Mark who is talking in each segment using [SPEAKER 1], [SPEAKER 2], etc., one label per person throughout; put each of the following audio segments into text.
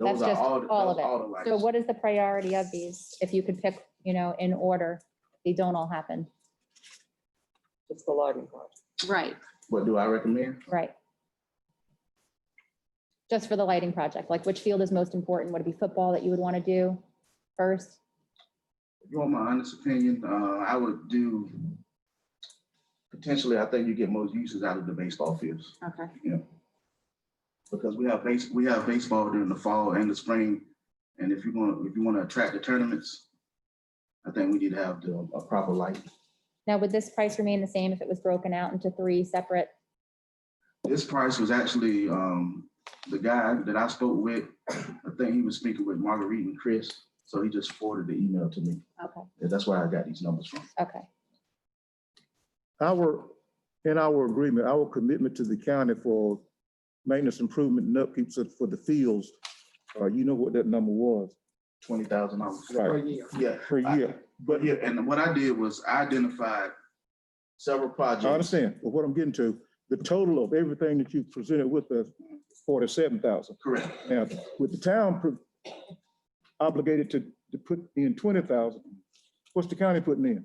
[SPEAKER 1] Those
[SPEAKER 2] That's
[SPEAKER 1] are
[SPEAKER 2] just
[SPEAKER 1] all, the-
[SPEAKER 2] all
[SPEAKER 1] those
[SPEAKER 2] of
[SPEAKER 1] all the
[SPEAKER 2] it. So
[SPEAKER 1] lights.
[SPEAKER 2] what is the priority of these? If you could pick, you know, in order, they don't all happen,
[SPEAKER 3] It's the lighting part.
[SPEAKER 4] Right.
[SPEAKER 1] What do I recommend?
[SPEAKER 2] right? Just for the lighting project, like which field is most important? Would it be football that you would want to do first?
[SPEAKER 1] If you want my honest opinion, uh, I would do, potentially, I think you get most uses out of the baseball fields.
[SPEAKER 4] Okay.
[SPEAKER 1] Because we have base, we have baseball during the fall and the spring. And if you want, if you want to attract the tournaments, I think we need to have the, a proper light.
[SPEAKER 2] Now, would this price remain the same if it was broken out into three separate?
[SPEAKER 1] This price was actually, um, the guy that I spoke with, I think he was speaking with Marguerite and Chris. So he just forwarded the email to me.
[SPEAKER 2] Okay,
[SPEAKER 1] And That's where I got these numbers from.
[SPEAKER 2] okay.
[SPEAKER 5] Our, in our agreement, our commitment to the county for maintenance improvement and upkeep so- for the fields, uh, you know what that number was,
[SPEAKER 1] Twenty thousand dollars.
[SPEAKER 3] per
[SPEAKER 5] right,
[SPEAKER 3] year.
[SPEAKER 1] Yeah.
[SPEAKER 5] per year.
[SPEAKER 1] But yeah, and what I did was I identified several
[SPEAKER 5] I
[SPEAKER 1] projects.
[SPEAKER 5] understand, but what I'm getting to, the total of everything that you presented with us, forty-seven thousand.
[SPEAKER 1] Correct.
[SPEAKER 5] Now, with the town pro- obligated to, to put in twenty thousand, what's the county putting in?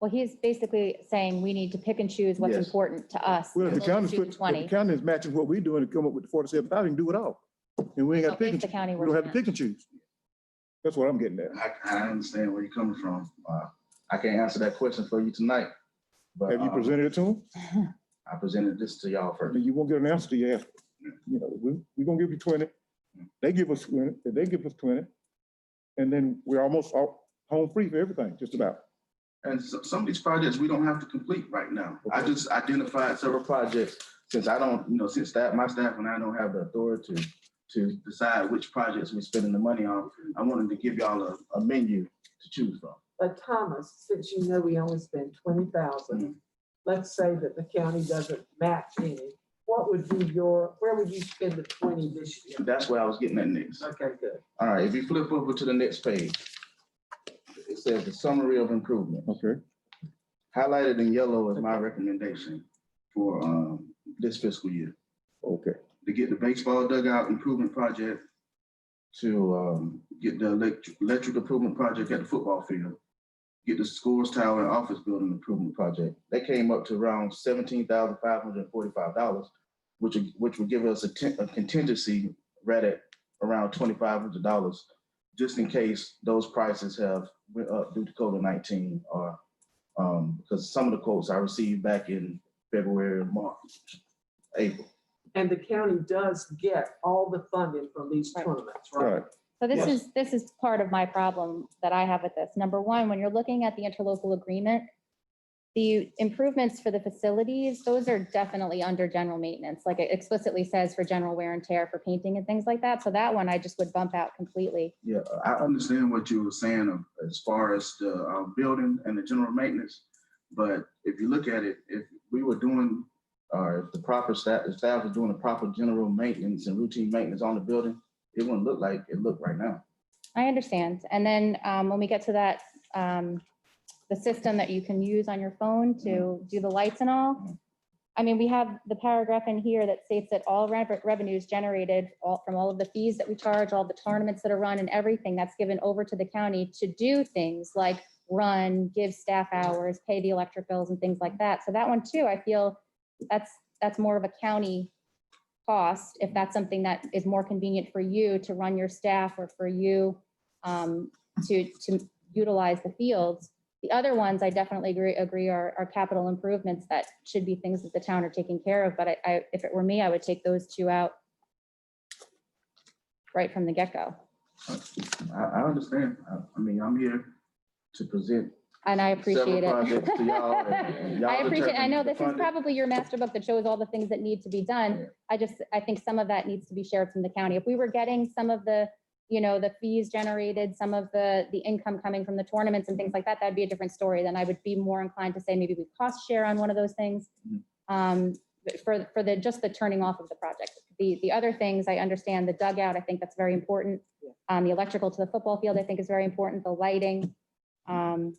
[SPEAKER 2] Well, he's basically saying we need to pick and choose what's
[SPEAKER 1] Yes.
[SPEAKER 2] important to us.
[SPEAKER 5] Well, if
[SPEAKER 2] We'll
[SPEAKER 5] the
[SPEAKER 2] just
[SPEAKER 5] county's
[SPEAKER 2] do the
[SPEAKER 5] putting, if the
[SPEAKER 2] Twenty.
[SPEAKER 5] county is matching what we're doing to come up with the forty-seven thousand, do it all. And we ain't
[SPEAKER 2] So
[SPEAKER 5] got to
[SPEAKER 2] if
[SPEAKER 5] pick and,
[SPEAKER 2] The county
[SPEAKER 5] we don't
[SPEAKER 2] were,
[SPEAKER 5] have to pick and choose. That's what I'm getting at.
[SPEAKER 1] I, I understand where you're coming from. Uh, I can't answer that question for you tonight. but,
[SPEAKER 5] Have you
[SPEAKER 1] uh,
[SPEAKER 5] presented it to them?
[SPEAKER 1] I presented this to y'all first.
[SPEAKER 5] then you won't get an answer till you ask. You know, we, we gonna give you twenty, they give us twenty, and they give us twenty. And then we're almost all home free for everything, just about.
[SPEAKER 1] And so- some of these projects we don't have to complete right now. I
[SPEAKER 5] Mm-hmm. Okay.
[SPEAKER 1] just identified several projects, since I don't, you know, since that, my staff and I don't have the authority to decide which projects we're spending the money on, I wanted to give y'all a, a menu to choose from.
[SPEAKER 3] But Thomas, since you know we only spend twenty thousand, let's say that the county doesn't match any, what would be your, where would you spend the twenty this year?
[SPEAKER 1] That's where I was getting at next.
[SPEAKER 3] Okay, good.
[SPEAKER 1] All right, if you flip over to the next page, it says the summary of improvement.
[SPEAKER 5] Okay.
[SPEAKER 1] Highlighted in yellow is my recommendation for, um, this fiscal year.
[SPEAKER 5] Okay,
[SPEAKER 1] to get the baseball dugout improvement project, to um, get the electric, electric improvement project at the football field, get the scores tower and office building improvement project. That came up to around seventeen thousand five hundred and forty-five dollars, which, would- which would give us a ten- a contingency right at around twenty-five hundred dollars, just in case those prices have went up due to COVID-nineteen or, um, because some of the quotes I received back in February, March, April.
[SPEAKER 3] And the county does get all the funding from these
[SPEAKER 2] Right.
[SPEAKER 3] tournaments,
[SPEAKER 5] all
[SPEAKER 3] right?
[SPEAKER 5] right.
[SPEAKER 2] so this
[SPEAKER 1] Yes.
[SPEAKER 2] is, this is part of my problem that I have with this. Number one, when you're looking at the interlocal agreement, the improvements for the facilities, those are definitely under general maintenance. Like it explicitly says for general wear and tear for painting and things like that. So that one I just would bump out completely.
[SPEAKER 1] Yeah, I understand what you were saying of- as far as the uh, building and the general maintenance. But if you look at it, if we were doing, or if the proper staff, if staff was doing the proper general maintenance and routine maintenance on the building, it wouldn't look like it looked right now.
[SPEAKER 2] I understand. And then um, when we get to that, um, the system that you can use on your phone to do the lights and all.
[SPEAKER 1] Mhm.
[SPEAKER 2] I mean, we have the paragraph in here that states that all rev- revenues generated all from all of the fees that we charge, all the tournaments that are run and everything that's given over to the county to do things like run, give staff hours, pay the electric bills and things like that. So that one too, I feel that's, that's more of a county cost, if that's something that is more convenient for you to run your staff or for you um, to, to utilize the fields. The other ones, I definitely agree, agree are, are capital improvements that should be things that the town are taking care of, but I, I, if it were me, I would take those two out right from the get-go.
[SPEAKER 1] I, I understand. I, I mean, I'm here to present.
[SPEAKER 2] And I appreciate
[SPEAKER 1] several projects to y'all and-
[SPEAKER 2] it.
[SPEAKER 1] and y'all
[SPEAKER 2] I appreciate, I
[SPEAKER 1] determine
[SPEAKER 2] know
[SPEAKER 1] the
[SPEAKER 2] this is
[SPEAKER 1] funding.
[SPEAKER 2] probably your master book that shows all the things that need to be
[SPEAKER 1] Yeah.
[SPEAKER 2] done. I just, I think some of that needs to be shared from the county. If we were getting some of the, you know, the fees generated, some of the, the income coming from the tournaments and things like that, that'd be a different story. Then I would be more inclined to say maybe we cost share on one of those things.
[SPEAKER 1] Mhm.
[SPEAKER 2] Um, but for, for the, just the turning off of the project. The, the other things, I understand the dugout, I think that's very important.
[SPEAKER 3] Yeah.
[SPEAKER 2] Um, the electrical to the football field, I think is very important, the lighting. Um,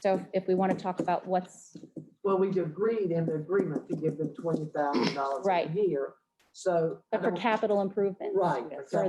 [SPEAKER 2] so if we want to talk about what's,
[SPEAKER 3] Well, we agreed in the agreement to give them twenty thousand dollars
[SPEAKER 2] Right.
[SPEAKER 3] a year.
[SPEAKER 2] so. I
[SPEAKER 3] but for
[SPEAKER 2] don't-
[SPEAKER 3] capital improvements.
[SPEAKER 2] Right.
[SPEAKER 3] For